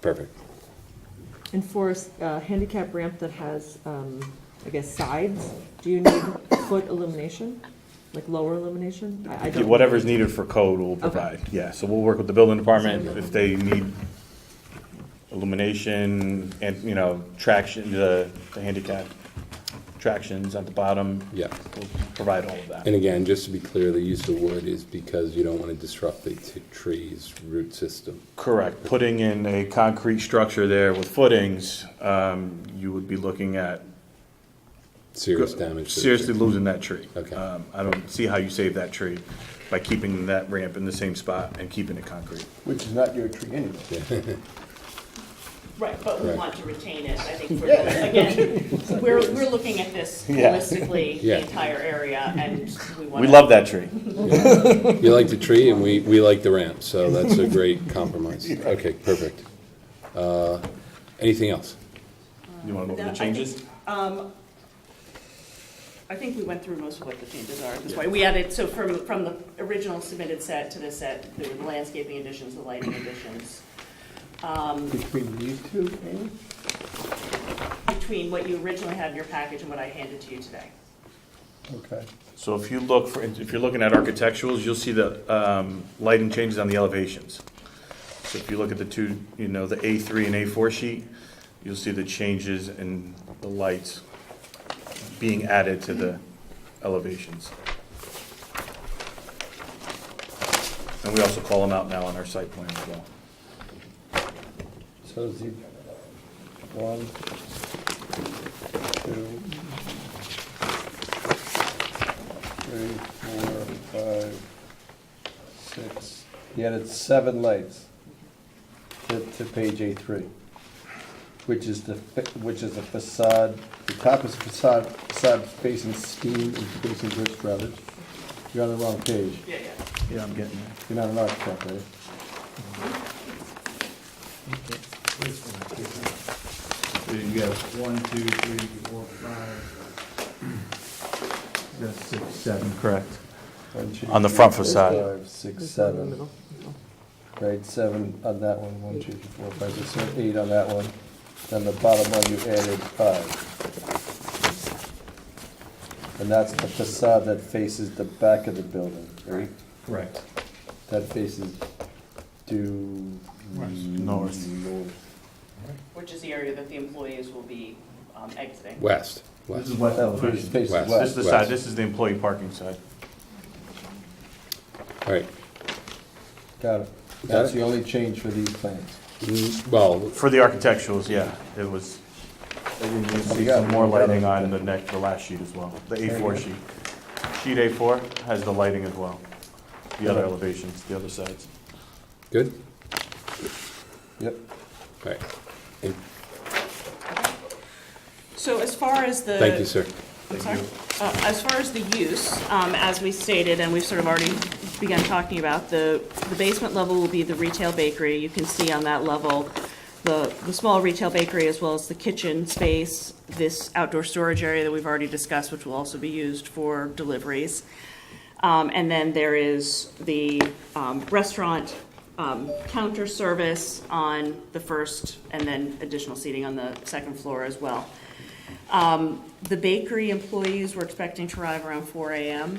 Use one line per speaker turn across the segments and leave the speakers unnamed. Perfect.
And for a s- a handicap ramp that has, um, I guess, sides, do you need foot illumination? Like lower illumination? I I don't.
Whatever's needed for code, we'll provide, yeah, so we'll work with the building department, if they need illumination, and, you know, traction, the the handicap tractions at the bottom.
Yeah.
We'll provide all of that.
And again, just to be clear, the use of wood is because you don't want to disrupt the t- tree's root system.
Correct, putting in a concrete structure there with footings, um, you would be looking at
Serious damage. to the
seriously
tree.
losing that tree.
Okay.
Um, I don't see how you save that tree by keeping that ramp in the same spot and keeping it concrete.
Which is not your tree anyway.
Right, but we
Right.
want to retain it, I think, for, again, we're, we're looking at this
Yeah.
holistically,
Yeah.
the entire area, and we want
We
to.
love that tree.
You like the tree and we, we like the ramp, so that's a great compromise. Okay, perfect. Uh, Anything else?
You want to move
No,
the
I
changes?
think, um, I think we went through most of what the changes are at this point. We added, so from, from the original submitted set to this set, there were the landscaping additions, the lighting additions. Um,
Between these two, Amy?
Between what you originally had in your package and what I handed to you today.
Okay.
So if you look, for if you're looking at architecturals, you'll see the um, lighting changes on the elevations. So if you look at the two, you know, the A3 and A4 sheet, you'll see the changes in the lights being added to the elevations. And we also call them out now on our site plan as well.
So is the one, two, three, four, five, six. He added seven lights to, to page A three, which is the, fa- which is the facade, the top is facade, facade facing steam and facing brick brothers. You're on the wrong page.
Yeah, yeah.
Yeah, I'm getting there.
You're not an architect, are you?
So you got one, two, three, four, five. That's six, seven, correct.
One, two,
On the
three,
front
four,
facade.
five, six,
There's one in the middle.
seven.
No.
Right, seven on that one, one, two, three, four, five, six, seven, eight on that one. Then the bottom one, you added five. And that's the facade that faces the back of the building, right?
Correct.
That faces due.
North.
Which is the area that the employees will be um, exiting.
West,
This
west.
is what
Oh, faces
elevation.
faces
West.
This is
west.
the side, this is the employee parking side.
All right.
Got it. That's the only change for these plans.
Mm, Well,
For the architecturals, yeah, it was, you see some more lighting on the neck, the last sheet as well, the A4 sheet. Sheet A4 has the lighting as well, the other elevations, the other sides.
good?
Yep.
All right. And
So as far as the.
Thank you, sir.
I'm sorry? Uh, As far as the use, um, as we stated, and we've sort of already begun talking about, the the basement level will be the retail bakery. You can see on that level, the the small retail bakery as well as the kitchen space, this outdoor storage area that we've already discussed, which will also be used for deliveries. Um, And then there is the um, restaurant um, counter service on the first, and then additional seating on the second floor as well. Um, The bakery employees were expecting to arrive around 4 AM.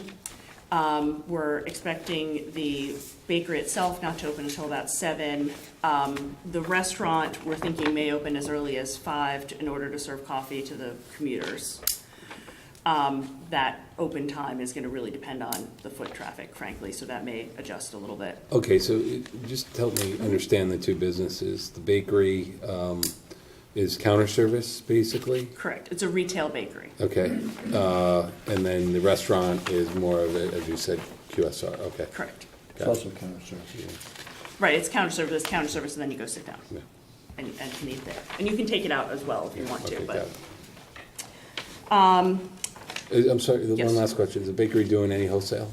Um, We're expecting the bakery itself not to open until about 7. Um, The restaurant, we're thinking may open as early as 5 to- in order to serve coffee to the commuters. Um, That open time is going to really depend on the foot traffic, frankly, so that may adjust a little bit.
Okay, so it- just help me understand the two businesses. The bakery um, is counter service, basically?
Correct, it's a retail bakery.
Okay. Uh, And then the restaurant is more of, a- as you said, QSR, okay.
Correct.
It's also counter service.
Right, it's counter service, counter service, and then you go sit down
Yeah.
and and can eat there. And you can take it out as well if you want to,
Okay,
but. Um,
got it. Uh, I'm sorry, the
yes.
one last question. Is the bakery doing any wholesale?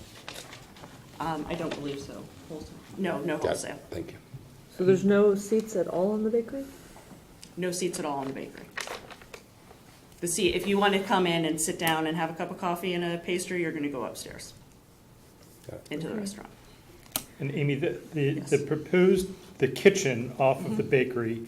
Um, I don't believe so. No, no
Got it.
wholesale.
Thank you.
So there's no seats at all in the bakery?
No seats at all in the bakery. The seat, if you want to come in and sit down and have a cup of coffee and a pastry, you're going to go upstairs
Got it.
into the restaurant.
And Amy, the, the,
Yes.
the proposed, the kitchen off of the bakery